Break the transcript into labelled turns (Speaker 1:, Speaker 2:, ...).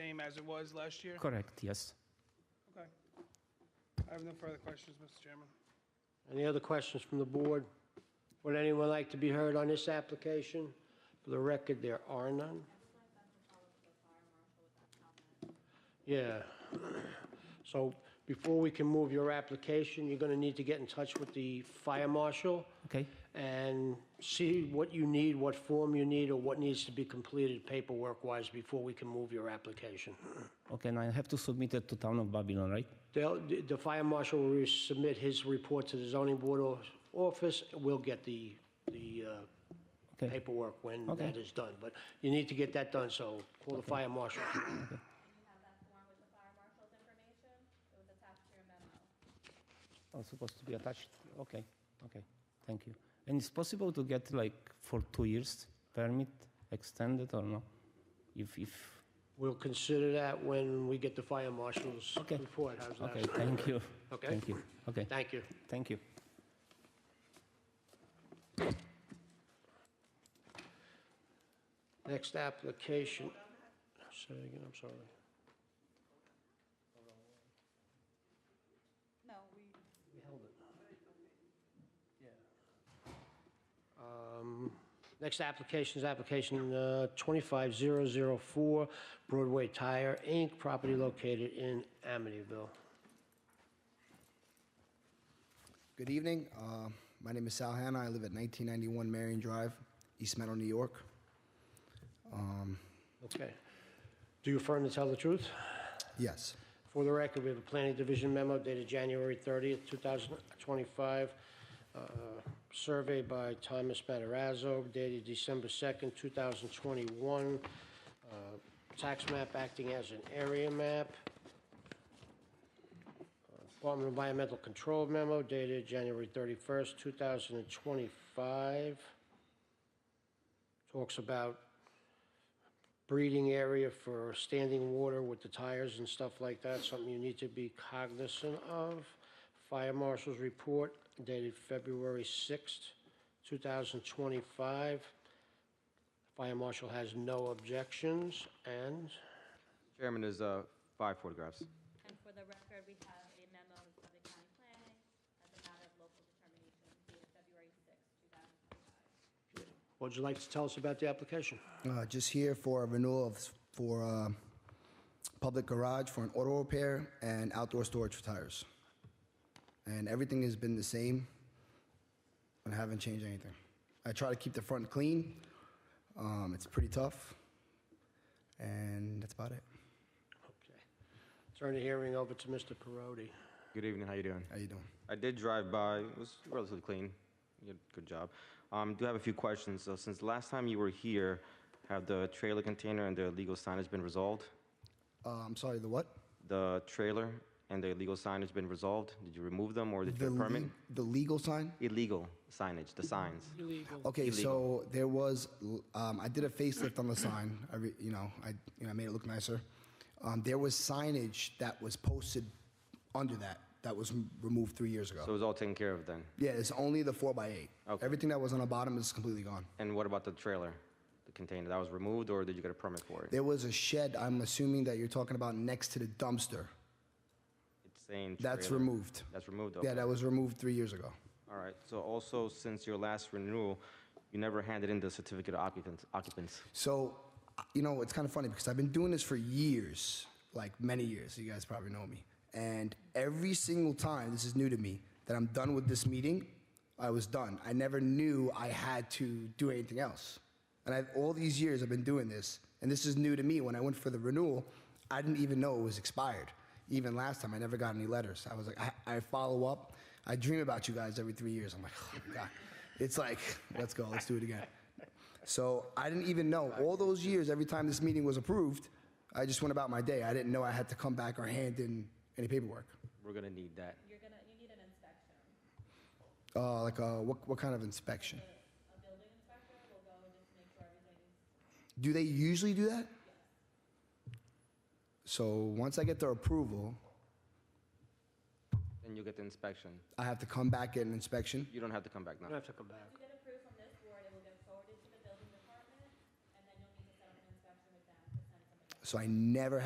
Speaker 1: same as it was last year?
Speaker 2: Correct, yes.
Speaker 1: Okay. I have no further questions, Mr. Chairman.
Speaker 3: Any other questions from the board? Would anyone like to be heard on this application? For the record, there are none. Yeah. So before we can move your application, you're going to need to get in touch with the fire marshal
Speaker 2: Okay,
Speaker 3: and see what you need, what form you need, or what needs to be completed paperwork-wise before we can move your application.
Speaker 2: okay, and I have to submit it to Town of Babylon, right?
Speaker 3: They'll, the the fire marshal will submit his report to the zoning board o- office. We'll get the, the uh,
Speaker 2: Okay,
Speaker 3: paperwork when
Speaker 2: Okay.
Speaker 3: that is done. But you need to get that done, so call the fire marshal.
Speaker 4: You have that form with the fire marshal's information. It was attached to your memo.
Speaker 2: I'm supposed to be attached, okay, okay, thank you. And it's possible to get like for two years permit extended or no? If, if,
Speaker 3: We'll consider that when we get the fire marshal's
Speaker 2: Okay.
Speaker 3: report. How's that?
Speaker 2: okay, thank you.
Speaker 3: Okay.
Speaker 2: Thank you, okay,
Speaker 3: Thank you.
Speaker 2: thank you.
Speaker 3: Next application. Say it again, I'm sorry.
Speaker 4: No, we.
Speaker 3: We held it. Yeah. Um, Next application is application uh, 25004 Broadway Tire, Inc., property located in Amityville.
Speaker 5: Good evening. Uh, my name is Sal Hanna. I live at 1991 Marion Drive, East Meadow, New York.
Speaker 3: Okay. Do you affirm to tell the truth?
Speaker 5: Yes.
Speaker 3: For the record, we have a planning division memo dated January 30th, 2025, uh, survey by Thomas Matarazzo dated December 2nd, 2021, uh, tax map acting as an area map, Department of Environmental Control memo dated January 31st, 2025, talks about breeding area for standing water with the tires and stuff like that, something you need to be cognizant of. Fire Marshal's report dated February 6th, 2025. Fire Marshal has no objections, and
Speaker 6: Chairman, there's uh, five photographs.
Speaker 4: And for the record, we have a memo of the county planning as a matter of local determination dated February sixth, two thousand twenty-five.
Speaker 3: what would you like to tell us about the application?
Speaker 5: Uh, just here for a renewal of, for uh, public garage for an auto repair and outdoor storage for tires. And everything has been the same. I haven't changed anything. I try to keep the front clean. Um, it's pretty tough. And that's about it.
Speaker 3: Okay. Turn the hearing over to Mr. Perotti.
Speaker 6: Good evening, how you doing?
Speaker 5: How you doing?
Speaker 6: I did drive by, it was relatively clean. You did a Good job. Um, Do have a few questions. So Since last time you were here, have the trailer container and the illegal signage been resolved?
Speaker 5: Uh, I'm sorry, the what?
Speaker 6: The trailer and the illegal signage been resolved? Did you remove them or did you get a permit?
Speaker 5: le- the legal sign?
Speaker 6: Illegal signage, the signs.
Speaker 5: Okay, so there was, um, I did a facelift on the sign. I, re, you know, I, you know, I made it look nicer. Um, there was signage that was posted under that that was m- removed three years ago.
Speaker 6: So it was all taken care of then?
Speaker 5: yeah, it's only the four by eight.
Speaker 6: Okay.
Speaker 5: Everything that was on the bottom is completely gone.
Speaker 6: And what about the trailer, the container? That was removed or did you get a permit for it?
Speaker 5: There was a shed. I'm assuming that you're talking about next to the dumpster.
Speaker 6: It's saying
Speaker 5: That's
Speaker 6: trailer.
Speaker 5: removed.
Speaker 6: That's removed,
Speaker 5: Yeah,
Speaker 6: okay.
Speaker 5: that was removed three years ago.
Speaker 6: All right, so also, since your last renewal, you never handed in the certificate of occupants- occupants.
Speaker 5: So, you know, it's kind of funny because I've been doing this for years, like many years. You guys probably know me. And every single time, this is new to me, that I'm done with this meeting, I was done. I never knew I had to do anything else. And I've, all these years I've been doing this, and this is new to me. When I went for the renewal, I didn't even know it was expired. Even last time, I never got any letters. I was like, I, I follow up. I dream about you guys every three years. I'm like, oh my God. It's like, let's go, let's do it again. So I didn't even know. All those years, every time this meeting was approved, I just went about my day. I didn't know I had to come back or hand in any paperwork.
Speaker 6: We're gonna need that.
Speaker 4: You're gonna, you need an inspection.
Speaker 5: Uh, like, uh, what, what kind of inspection?
Speaker 4: A building inspector will go and just make sure everything's
Speaker 5: Do they usually do that? So once I get their approval,
Speaker 6: Then you get the inspection.
Speaker 5: I have to come back get an inspection.
Speaker 6: You don't have to come back
Speaker 3: You
Speaker 6: now.
Speaker 3: don't have to come back.
Speaker 4: Once you get approved from this board, it will get forwarded to the building department, and then you'll need to set up an inspection with them to send somebody.
Speaker 5: So I never